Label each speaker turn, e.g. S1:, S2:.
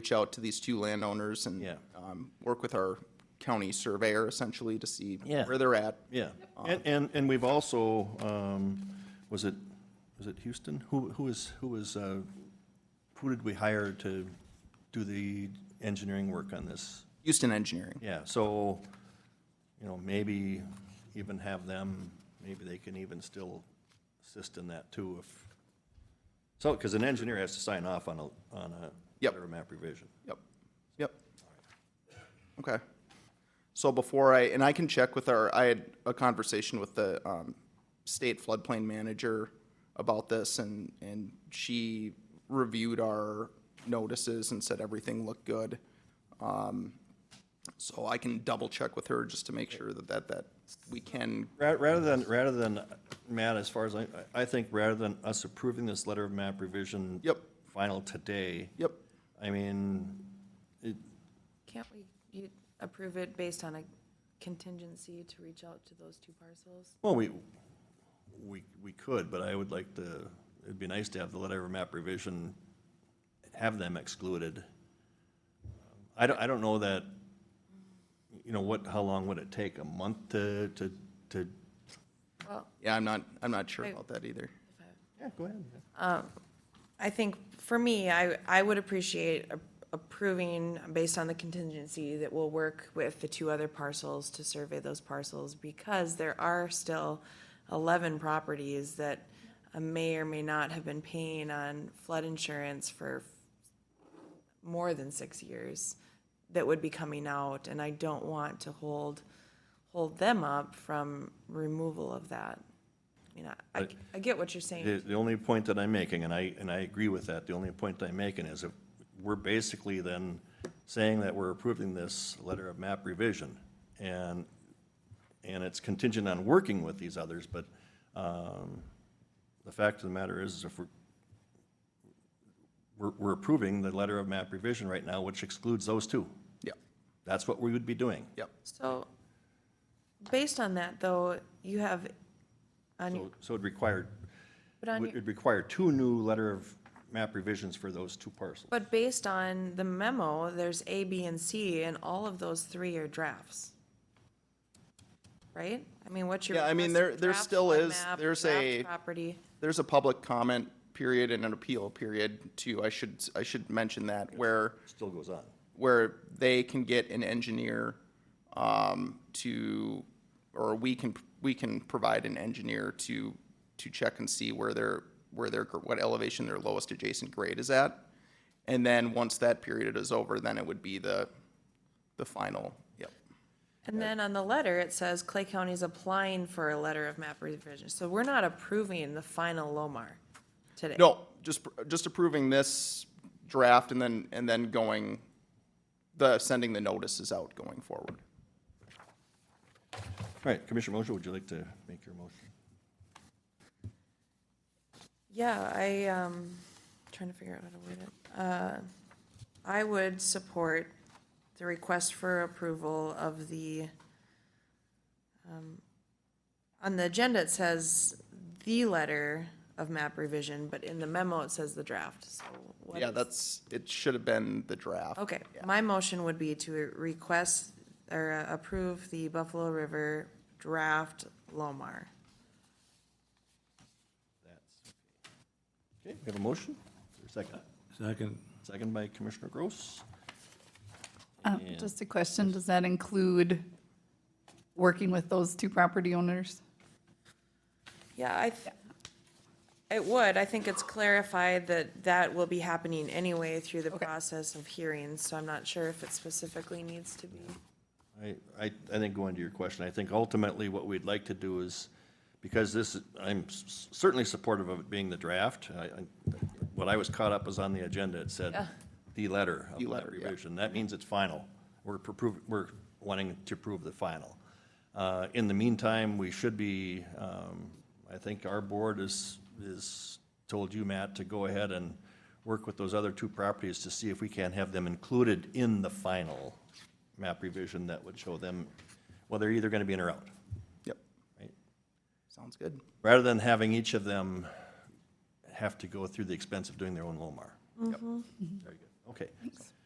S1: reach out to these two landowners and
S2: Yeah.
S1: um, work with our county surveyor essentially to see
S2: Yeah.
S1: where they're at.
S2: Yeah, and, and, and we've also, um, was it, was it Houston? Who, who is, who is, uh, who did we hire to do the engineering work on this?
S1: Houston Engineering.
S2: Yeah, so, you know, maybe even have them, maybe they can even still assist in that too if, so, because an engineer has to sign off on a, on a
S1: Yep.
S2: letter of map revision.
S1: Yep, yep. Okay. So before I, and I can check with our, I had a conversation with the um, state floodplain manager about this, and, and she reviewed our notices and said everything looked good. Um, So I can double check with her just to make sure that, that, that we can,
S2: Ra- Rather than, rather than, Matt, as far as I, I think rather than us approving this letter of map revision.
S1: Yep.
S2: Final today.
S1: yep,
S2: I mean, it,
S3: Can't we, you approve it based on a contingency to reach out to those two parcels?
S2: well, we, we, we could, but I would like to, it'd be nice to have the letter of map revision, have them excluded. I don't, I don't know that, you know, what, how long would it take? A month to, to, to?
S3: Well,
S1: yeah, I'm not, I'm not sure
S3: Wait.
S1: about that either.
S3: if I-
S2: Yeah, go ahead.
S3: I think for me, I, I would appreciate a- approving based on the contingency that we'll work with the two other parcels to survey those parcels because there are still eleven properties that uh, may or may not have been paying on flood insurance for more than six years that would be coming out, and I don't want to hold, hold them up from removal of that. You know, I,
S2: But-
S3: I get what you're saying.
S2: The, the only point that I'm making, and I, and I agree with that, the only point that I'm making is if we're basically then saying that we're approving this letter of map revision, and, and it's contingent on working with these others, but, um, the fact of the matter is, is if we're, we're, we're approving the letter of map revision right now, which excludes those two.
S1: Yep,
S2: That's what we would be doing.
S1: yep.
S3: So, based on that, though, you have, on, your-
S2: So, so it required,
S3: but on, your-
S2: it'd require two new letter of map revisions for those two parcels.
S3: but based on the memo, there's A, B, and C, and all of those three are drafts. Right? I mean, what's your?
S1: Yeah, I mean,
S3: request?
S1: there- there
S3: Draft
S1: still
S3: flood
S1: is-
S3: map,
S1: there's
S3: draft
S1: a-
S3: Property,
S1: there's a public comment period and an appeal period too. I should, I should mention that where,
S2: Still goes on.
S1: where they can get an engineer um, to, or we can, we can provide an engineer to, to check and see where their, where their, what elevation their lowest adjacent grade is at. And then once that period is over, then it would be the, the final, yep.
S3: and then on the letter, it says Clay County's applying for a letter of map revision, so we're not approving the final Lomar today.
S1: No, just, just approving this draft and then, and then going, the, sending the notices out going forward.
S2: All right, Commissioner Mosher, would you like to make your motion?
S3: Yeah, I, um, trying to figure out how to word it. Uh, I would support the request for approval of the, um, on the agenda, it says the letter of map revision, but in the memo, it says the draft, so what
S1: Yeah,
S3: is?
S1: that's, it should have been the draft.
S3: Okay, my motion would be to request or uh, approve the Buffalo River draft Lomar.
S2: Okay, we have a motion? Is there a Second.
S4: Second.
S2: Second by Commissioner Gross.
S5: Uh,
S2: And-
S5: Just a question, does that include working with those two property owners?
S3: Yeah, I, th- it would. I think it's clarified that that will be happening anyway through the
S5: Okay.
S3: process of hearings, so I'm not sure if it specifically needs to be.
S2: I, I, I think going to your question, I think ultimately what we'd like to do is, because this, is- I'm s- certainly supportive of it being the draft. I, I, what I was caught up was on the agenda, it said the letter of
S1: The
S2: that
S1: letter, yeah.
S2: revision. That means it's final. We're appro- we're wanting to prove the final. Uh, in the meantime, we should be, um, I think our board is, is, told you, Matt, to go ahead and work with those other two properties to see if we can have them included in the final map revision that would show them, well, they're either gonna be in or out,
S1: Yep,
S2: right?
S1: sounds good.
S2: Rather than having each of them have to go through the expense of doing their own Lomar. Yep. Very good, okay.